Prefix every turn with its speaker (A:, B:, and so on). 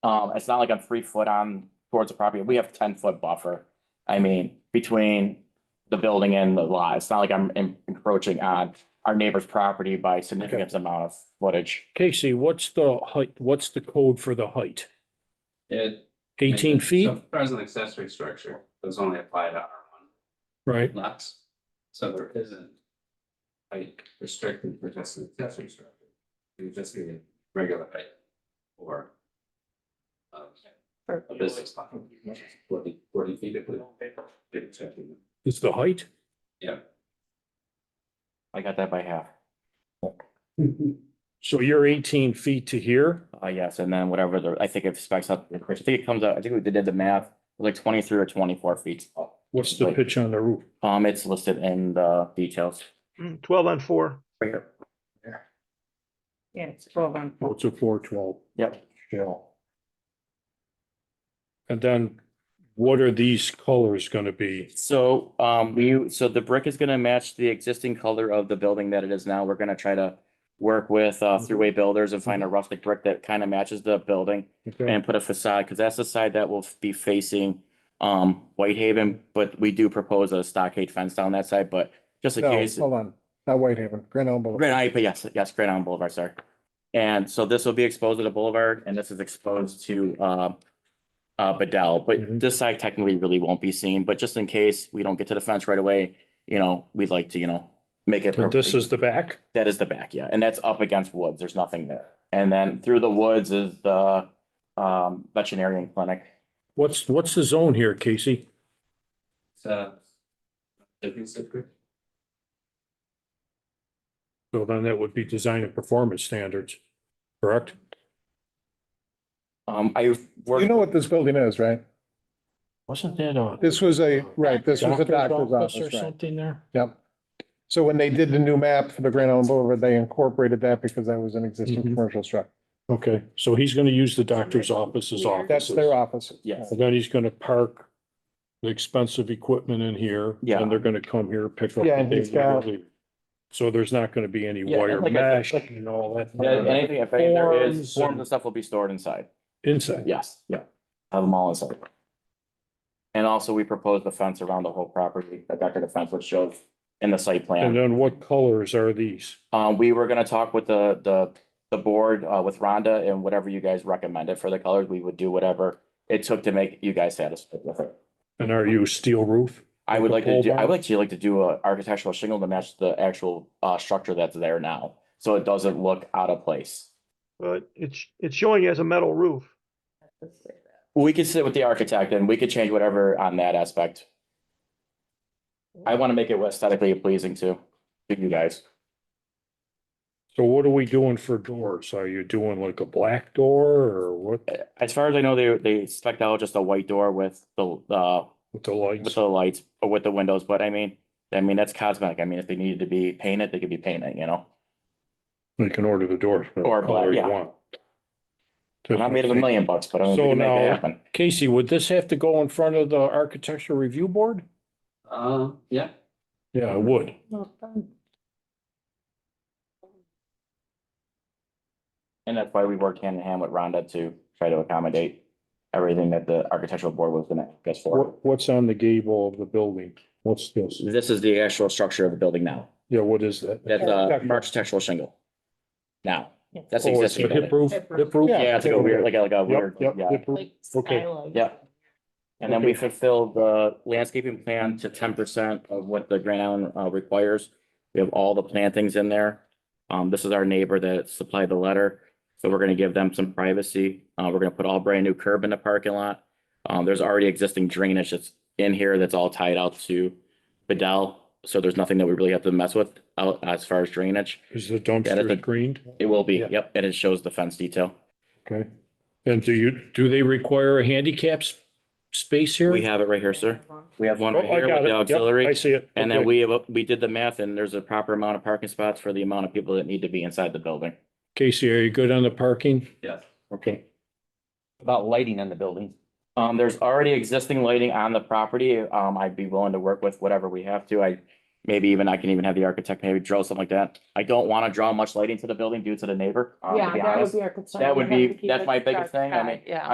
A: Um, it's not like I'm three foot on towards the property. We have ten foot buffer. I mean, between the building and the lot. It's not like I'm en- encroaching on our neighbor's property by significant amount of footage.
B: Casey, what's the height, what's the code for the height?
C: It.
B: Eighteen feet,
C: So far as an accessory structure, those only apply to R one
B: right?
C: lots, so there isn't. Like restricted for just an accessory structure, you just need a regular height or. um,
D: For-
C: A business lot, forty, forty feet if we. Maybe checking.
B: Is the height?
A: I got that by half.
B: So you're eighteen feet to here?
A: Uh, yes, and then whatever the, I think it specs up, I think it comes out, I think we did the math, like twenty-three or twenty-four feet. tall.
B: What's the pitch on the roof?
A: Um, it's listed in the details.
E: Mm, Twelve on four.
D: Yeah, it's twelve on.
B: Oh, it's a four twelve.
A: Yep.
B: Shell. And then what are these colors gonna be?
A: So, um, we, so the brick is gonna match the existing color of the building that it is now. We're gonna try to work with, uh, Thruway Builders and find a rustic brick that kind of matches the building
B: Okay,
A: and put a facade, because that's the side that will be facing, um, Whitehaven, but we do propose a stockade fence down that side, but just in
F: No,
A: case.
F: hold on, not Whitehaven, Grand Island Boulevard.
A: Grand Island, but yes, yes, Grand Island Boulevard, sorry. And so this will be exposed to the boulevard and this is exposed to, uh, uh, Bedell, but
F: Mm-hmm.
B: Mhm.
A: this side technically really won't be seen, but just in case we don't get to the fence right away, you know, we'd like to, you know, make it.
B: so this is the back?
A: That is the back, yeah, and that's up against woods, there's nothing there. And then through the woods is the, um, veterinarian clinic.
B: What's, what's the zone here, Casey?
C: So. Living secret,
B: So then that would be design and performance standards, correct?
A: Um, I.
F: You know what this building is, right?
B: Wasn't that a?
F: This was a, right, this was a doctor's
B: Or
F: office, right?
B: something there?
F: Yep. So when they did the new map for the Grand Island Boulevard, they incorporated that because that was an existing
B: Mhm.
F: commercial structure.
B: Okay, so he's gonna use the doctor's office as offices.
F: That's their office.
A: Yes.
B: And then he's gonna park the expensive equipment in here.
A: Yeah.
B: And they're gonna come here, pick up.
F: Yeah,
B: the
F: and he's
B: big
F: got-
B: league. So there's not gonna be any
A: Yeah,
B: wire
A: and like I
B: mesh
A: said-
B: and all that.
A: Yeah, Anything, if any there is,
B: Forms
A: forms
B: and-
A: and stuff will be stored inside.
B: Inside.
A: Yes, yeah, have them all inside. And also, we proposed the fence around the whole property, the decorative fence, which shows in the site
B: And
A: plan.
B: then what colors are these?
A: Uh, we were gonna talk with the, the, the board, uh, with Rhonda and whatever you guys recommended for the colors, we would do whatever it took to make you guys satisfied with it.
B: And are you steel roof?
A: I would like
B: Like a
A: to do,
B: pole
A: I would
B: barn?
A: like to like to do a architectural shingle to match the actual, uh, structure that's there now, so it doesn't look out of place.
E: Well, it's, it's showing as a metal roof.
A: We could sit with the architect and we could change whatever on that aspect. I wanna make it aesthetically pleasing to, to you guys.
B: So what are we doing for doors? Are you doing like a black door or what
A: As far as I know, they, they spec'd out just a white door with the, uh,
B: with the
A: with
B: lights?
A: the lights or with the windows, but I mean, I mean, that's cosmetic. I mean, if they needed to be painted, they could be painted, you know?
B: You can order the doors.
A: Or
B: whatever
A: black,
B: color you
A: yeah.
B: want.
A: I'm not made of a million bucks, but I mean, we
B: So
A: can make
B: now-
A: it happen.
B: Casey, would this have to go in front of the architecture review board?
C: um, yeah,
B: Yeah, it would.
A: And that's why we worked hand in hand with Rhonda to try to accommodate everything that the architectural board was gonna guess for.
B: What, what's on the gable of the building? What's this?
A: This is the actual structure of the building now.
B: Yeah, what is that?
A: That's a architectural shingle. Now, that's the
B: Oh, it's a
A: existing building.
B: hip roof,
D: Hip
B: hip roof?
A: Yeah, it's like a weird, like a, like a weird,
B: Yep, yep,
A: yeah.
B: hip roof. Okay.
A: Yeah. And then we fulfilled the landscaping plan to ten percent of what the Grand Island uh requires. We have all the plantings in there. Um, this is our neighbor that supplied the letter, so we're gonna give them some privacy. Uh, we're gonna put all brand new curb in the parking lot. Um, there's already existing drainage that's in here that's all tied out to Bedell, so there's nothing that we really have to mess with out as far as drainage.
B: Is the
A: Yeah, that's a-
B: dumpster screened?
A: It will be,
B: Yeah.
A: yep, and it shows the fence detail.
B: Okay. And do you, do they require a handicap s- space here?
A: We have it right here, sir. We have one
B: Oh,
A: right
B: I
A: here
B: got
A: with
B: it.
A: the
B: Yep,
A: auxiliary.
B: I see it.
A: And then
B: Okay.
A: we have, a- we did the math and there's a proper amount of parking spots for the amount of people that need to be inside the building.
B: Casey, are you good on the parking?
C: yeah.
A: Okay. About lighting in the building? Um, there's already existing lighting on the property. Um, I'd be willing to work with whatever we have to. I, maybe even, I can even have the architect maybe draw something like that. I don't want to draw much lighting to the building due to the neighbor, um, to be honest.
D: our concern.
A: That
D: We
A: would
D: have to
A: be-
D: keep
A: that's
D: it
A: my biggest
D: dark
A: thing. I
D: sky,
A: mean,
D: Yeah.